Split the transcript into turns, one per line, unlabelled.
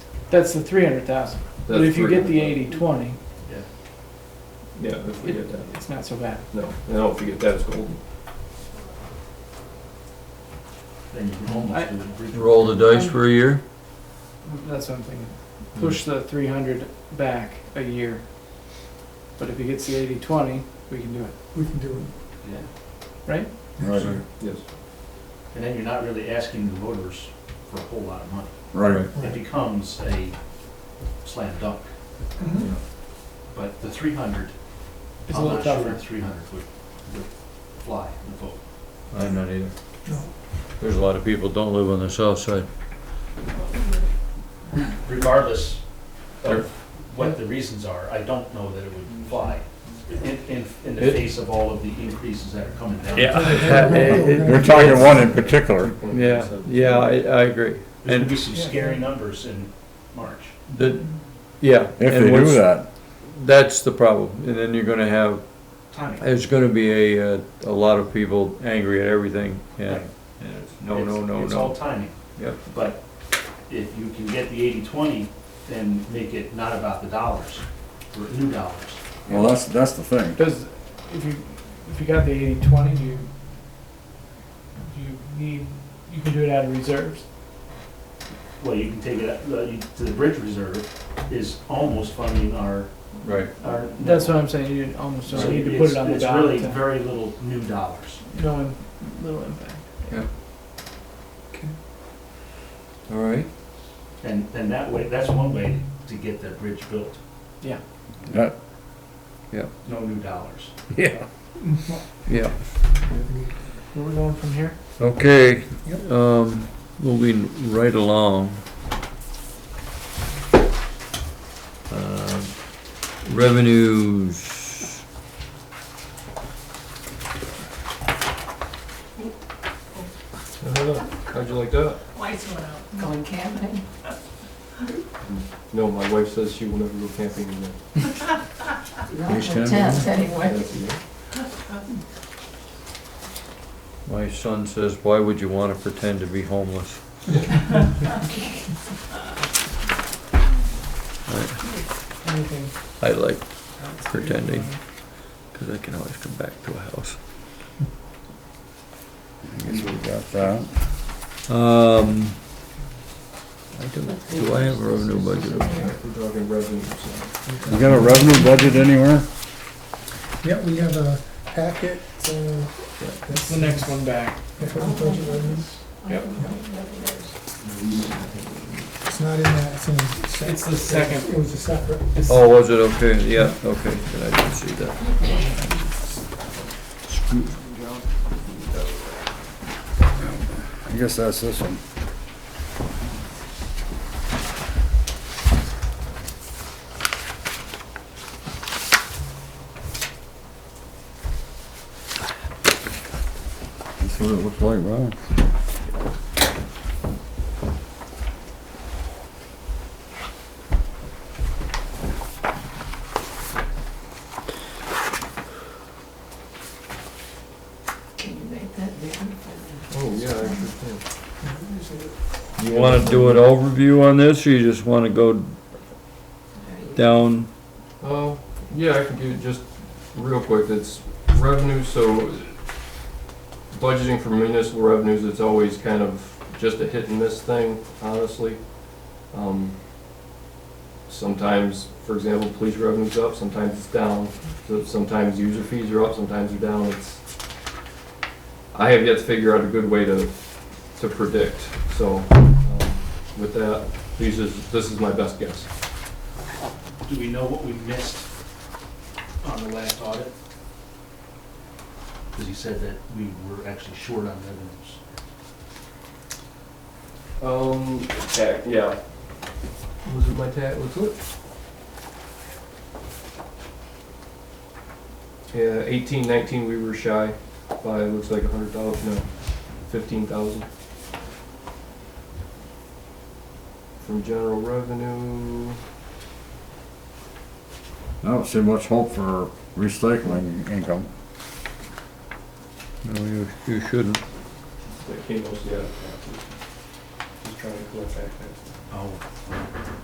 That's the three hundred thousand. But
That's
if you get the
300,000.
eighty, twenty,
Yeah, if we get that,
it's not so bad.
no, no, if we get that, it's golden.
Then you can almost do the bridge.
Roll the dice for a year?
That's what I'm thinking.
Hmm.
Push the three hundred back a year. But if he gets the eighty, twenty, we can do it.
We can do it.
Yeah.
Right?
Right,
Yes.
And then you're not really asking the voters for a whole lot of money.
right.
It becomes a slam dunk.
Mhm.
But the three hundred,
Mm-hmm. It's a
I'm
little
not sure
tougher.
three hundred would, would fly in the vote.
I'm not either.
No.
There's a lot of people don't live on the south side.
regardless of what the reasons are, I don't know that it would fly in, in, in the
It-
face of all of the increases that are coming down.
They're talking one in particular.
Yeah, yeah, I, I agree.
There's gonna be some scary numbers in March.
The, yeah.
If they
and
do
what's-
that,
That's the problem. And then you're gonna have,
Timing.
there's gonna be a, uh, a lot of people angry at everything, yeah.
Right.
And it's No,
It's-
no, no,
It's all
no.
timing.
Yep.
But if you can get the eighty-twenty, then make it not about the dollars, or new dollars.
well, that's, that's the thing.
Does, if you, if you got the eighty, twenty, do you, do you need, you can do it out of reserves?
Well, you can take it, up- uh, you- to the bridge reserve is almost funding our,
Right.
our.
That's what I'm saying, you almost
Uh, So
don't need to put
it's-
it on the
it's
ballot.
really very little new dollars.
to- No, im- little impact.
All right.
And, and that way, that's one way to get that bridge built,
That-
no new dollars.
Yeah. Yeah,
Where we going from here?
okay,
Yep.
um, moving right along. Um, Revenues.
How'd you like that?
Lights went out, going camping.
No, my wife says she will never go camping in there.
Page
The
ten.
Tent, anyway.
That's it.
My son says, why would you want to pretend to be homeless?
Anything?
I like pretending, because I can always come back to a house.
I guess we got that.
Um, I do, do I have a revenue budget?
If We're talking revenue, so.
You got a revenue budget anywhere?
Yeah, we have a packet, uh, that's
The next one back.
that's what the budget is. It's not in that, it's in. the sec-
It's the second.
It was a separate.
Oh, was it okay? Yeah, okay, then I didn't see that.
I guess that's this one. That's what it looks like, wow.
Can you make that bigger?
Oh, yeah, I sure can.
You want to do an overview on this, or you just want to go down?
Uh, yeah, I can give you just real quick, it's revenue, so budgeting for municipal revenues, it's always kind of just a hit and miss thing, honestly. Um, Sometimes, for example, police revenue's up, sometimes it's down, So sometimes user fees are up, sometimes they're down, it's, I have yet to figure out a good way to, to predict, so, um, with that, these is, this is my best guess.
Do we know what we missed on the last audit? Because he said that we were actually short on revenues.
Um, tax, yeah. Was it my tax, was it? Yeah, eighteen, nineteen, we were shy by, it looks like a hundred dollars, no, fifteen thousand. From general revenue,
I don't see much hope for recycling income.
No, you, you shouldn't.
that came mostly out of taxes. Just trying to collect back taxes.
Oh.